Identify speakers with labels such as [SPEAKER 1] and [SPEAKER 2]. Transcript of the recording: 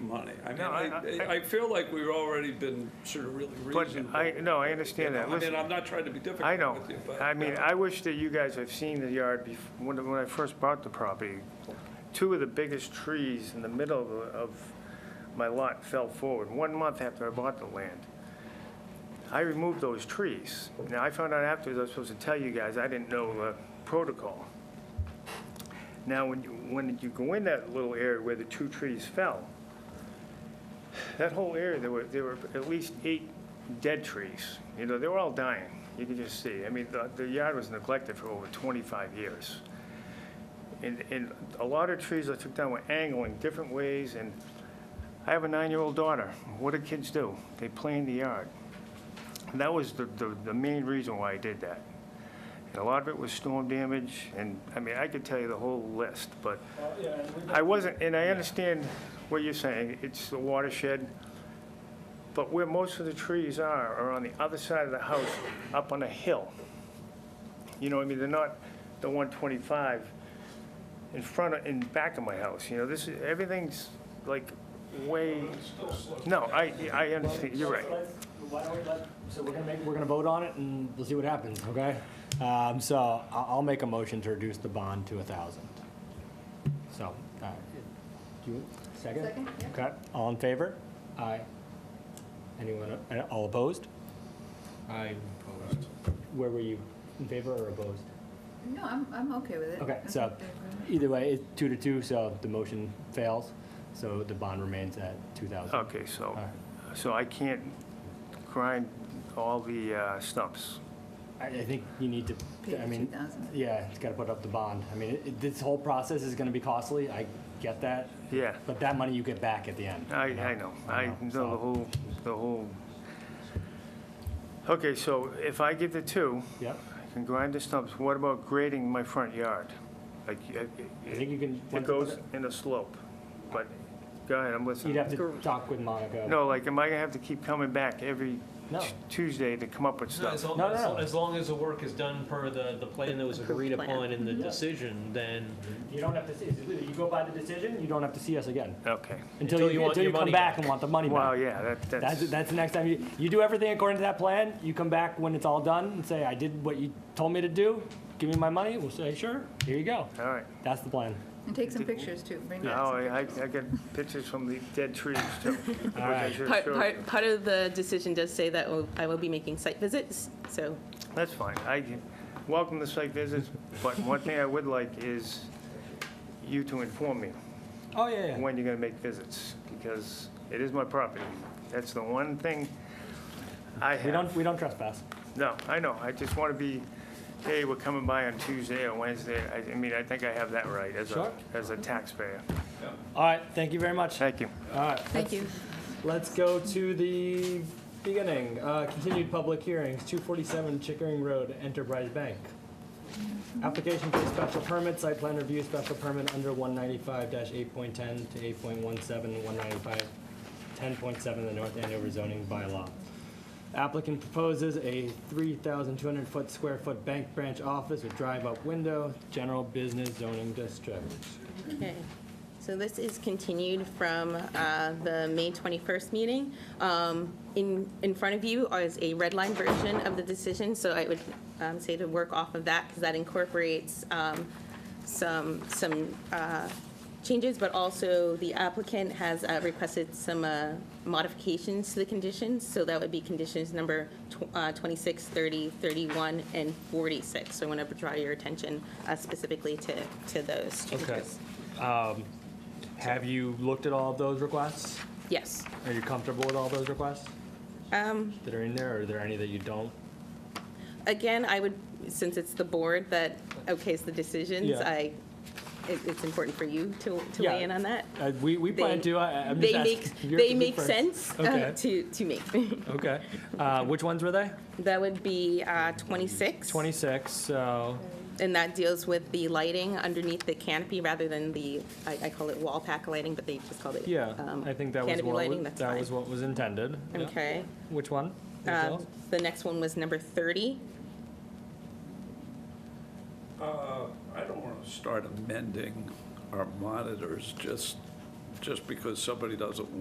[SPEAKER 1] money. I mean,
[SPEAKER 2] No,
[SPEAKER 1] I,
[SPEAKER 2] I- I-
[SPEAKER 1] I feel like we've already been sort of really
[SPEAKER 2] But
[SPEAKER 1] reasonable.
[SPEAKER 2] I,
[SPEAKER 1] you
[SPEAKER 2] no, I
[SPEAKER 1] know?
[SPEAKER 2] understand that.
[SPEAKER 1] I
[SPEAKER 2] Listen,
[SPEAKER 1] mean, I'm not trying to be
[SPEAKER 2] I
[SPEAKER 1] difficult
[SPEAKER 2] know.
[SPEAKER 1] with you, but. uh,
[SPEAKER 2] I mean, I wish that you guys have seen the yard bef, when, when I first bought the property. Two of the biggest trees in the middle of, of my lot fell forward, one month after I bought the land. I removed those trees. Now, I found out afterwards, I was supposed to tell you guys, I didn't know the protocol. Now, when you, when you go in that little area where the two trees fell, that whole area, there were, there were at least eight dead trees. You know, they were all dying. You could just see. I mean, the, the yard was neglected for over 25 years. And, and a lot of trees I took down were angling different ways, and I have a nine-year-old daughter. What do kids do? They play in the yard. And that was the, the, the main reason why I did that. And a lot of it was storm damage, and, I mean, I could tell you the whole list, but I wasn't, and I understand what you're saying, it's the watershed, but where most of the trees are, are on the other side of the house, up on a hill. You know, what I mean, they're not the 125 in front of, in back of my house, you know, this, is everything's like way, no, I, I understand, you're right.
[SPEAKER 3] Why don't we let- So we're gonna make, we're gonna vote on it and we'll see what happens, okay? Um, so I'll, I'll make a motion to reduce the bond to a thousand. So, uh, do you, second?
[SPEAKER 4] Second, yeah.
[SPEAKER 3] Okay, all in favor? Aye. Anyone, uh, all opposed?
[SPEAKER 5] I opposed.
[SPEAKER 3] Where were you, in favor or opposed?
[SPEAKER 4] No, I'm, I'm okay with it.
[SPEAKER 3] Okay,
[SPEAKER 4] I'm
[SPEAKER 3] so
[SPEAKER 4] okay with it.
[SPEAKER 3] either way, it's two to two, so the motion fails, so the bond remains at two thousand.
[SPEAKER 2] Okay, so,
[SPEAKER 3] right.
[SPEAKER 2] so I can't grind all the uh, stumps.
[SPEAKER 3] I, I think you need to, I
[SPEAKER 4] Pay the
[SPEAKER 3] mean,
[SPEAKER 4] 2,000.
[SPEAKER 3] yeah, it's gotta put up the bond. I mean, it- this whole process is gonna be costly, I get that,
[SPEAKER 2] Yeah,
[SPEAKER 3] but that money you get back at the end.
[SPEAKER 2] I,
[SPEAKER 3] you
[SPEAKER 2] I know, I know the
[SPEAKER 3] so-
[SPEAKER 2] whole, the whole. Okay, so if I get the two,
[SPEAKER 3] Yep,
[SPEAKER 2] I can grind the stumps. What about grading my front yard? Like, uh, it-
[SPEAKER 3] I think you can.
[SPEAKER 2] it goes in a slope, but, go ahead, I'm listening.
[SPEAKER 3] You'd have to talk with Monica.
[SPEAKER 2] No, like, am I gonna have to keep coming back every
[SPEAKER 3] No.
[SPEAKER 2] Tuesday to come up with
[SPEAKER 5] No, as
[SPEAKER 2] stuff?
[SPEAKER 5] long,
[SPEAKER 3] No, no,
[SPEAKER 5] as,
[SPEAKER 3] no.
[SPEAKER 5] as long as the work is done per the, the plan that was agreed
[SPEAKER 4] Approved plan.
[SPEAKER 5] upon in the
[SPEAKER 3] Mm-hmm.
[SPEAKER 5] decision, then
[SPEAKER 3] You don't have to see, it's literally, you go by the decision, you don't have to see us again,
[SPEAKER 2] Okay.
[SPEAKER 3] until you,
[SPEAKER 5] want
[SPEAKER 3] until you
[SPEAKER 5] your
[SPEAKER 3] come
[SPEAKER 5] money
[SPEAKER 3] back and want the money
[SPEAKER 2] Wow,
[SPEAKER 3] back.
[SPEAKER 2] yeah, that,
[SPEAKER 3] That's,
[SPEAKER 2] that's,
[SPEAKER 3] that's the next time you, you do everything according to that plan, you come back when it's all done and say, I did what you told me to do, give me my money, we'll say, sure, here you go.
[SPEAKER 2] all right.
[SPEAKER 3] That's the plan.
[SPEAKER 4] And take some pictures too, bring back
[SPEAKER 2] No,
[SPEAKER 4] some
[SPEAKER 2] Oh, I, I
[SPEAKER 4] pictures.
[SPEAKER 2] I got pictures from the dead trees too. which I
[SPEAKER 3] right.
[SPEAKER 2] should've
[SPEAKER 6] Part,
[SPEAKER 2] showed
[SPEAKER 6] part,
[SPEAKER 2] you.
[SPEAKER 6] part of the decision does say that we'll- I will be making site visits, so
[SPEAKER 2] That's fine. I can- welcome the site visits, but one thing I would like is you to inform me
[SPEAKER 3] Oh, yeah, yeah.
[SPEAKER 2] when you're gonna make visits, because it is my property. That's the one thing I
[SPEAKER 3] We
[SPEAKER 2] have.
[SPEAKER 3] don't, we don't trespass.
[SPEAKER 2] No, I know. I just wanna be, hey, we're coming by on Tuesday or Wednesday. I, I mean, I think I have that right as a,
[SPEAKER 3] Sure.
[SPEAKER 2] as a taxpayer.
[SPEAKER 3] All right, thank you very much. All
[SPEAKER 2] Thank you.
[SPEAKER 3] right,
[SPEAKER 4] Thank you.
[SPEAKER 3] let's go to the beginning. Uh, Continued public hearings, 247 Chickering Road, Enterprise Bank. Application for special permit, site plan review, special permit under 195-8.10 to 8.17, 195, 10.7 of the North Andover zoning bylaw. Applicant proposes a 3,200-foot square foot bank branch office with drive-up window, general business zoning district.
[SPEAKER 6] Okay, so this is continued from uh, the May 21st meeting. Um, In, in front of you is a red line version of the decision, so I would um, say to work off of that, because that incorporates um, some, some uh, changes, but also the applicant has uh, requested some uh, modifications to the conditions, so that would be conditions number tw- uh, 26, 30, 31, and 46. So I want to draw your attention uh, specifically to, to those changes.
[SPEAKER 3] Have you looked at all of those requests?
[SPEAKER 6] Yes.
[SPEAKER 3] Are you comfortable with all those requests
[SPEAKER 6] Um,
[SPEAKER 3] that are in there, or are there any that you don't?
[SPEAKER 6] Again, I would, since it's the board that okays the decisions,
[SPEAKER 3] Yeah.
[SPEAKER 6] I, it- it's important for you to to
[SPEAKER 3] Yeah.
[SPEAKER 6] weigh in on that.
[SPEAKER 3] Uh, We, we plan
[SPEAKER 6] They-
[SPEAKER 3] to, I- I'm just
[SPEAKER 6] They
[SPEAKER 3] asking.
[SPEAKER 6] make,
[SPEAKER 3] You're-
[SPEAKER 6] they
[SPEAKER 3] you're
[SPEAKER 6] make
[SPEAKER 3] first.
[SPEAKER 6] sense uh,
[SPEAKER 3] Okay.
[SPEAKER 6] to, to me.
[SPEAKER 3] Okay. Uh, Which ones were they?
[SPEAKER 6] That would be uh, 26.
[SPEAKER 3] 26, so,
[SPEAKER 6] And that deals with the lighting underneath the canopy rather than the, I I call it wall pack lighting, but they just called it.
[SPEAKER 3] yeah,
[SPEAKER 6] um,
[SPEAKER 3] I think that was
[SPEAKER 6] Canopy
[SPEAKER 3] what,
[SPEAKER 6] lighting,
[SPEAKER 3] was-
[SPEAKER 6] that's
[SPEAKER 3] that was
[SPEAKER 6] fine.
[SPEAKER 3] what was intended. Yeah.
[SPEAKER 6] Okay.
[SPEAKER 3] Which one?
[SPEAKER 6] Uh,
[SPEAKER 3] Yourself?
[SPEAKER 6] The next one was number 30.
[SPEAKER 1] Uh, I don't want to start amending our monitors just, just because somebody doesn't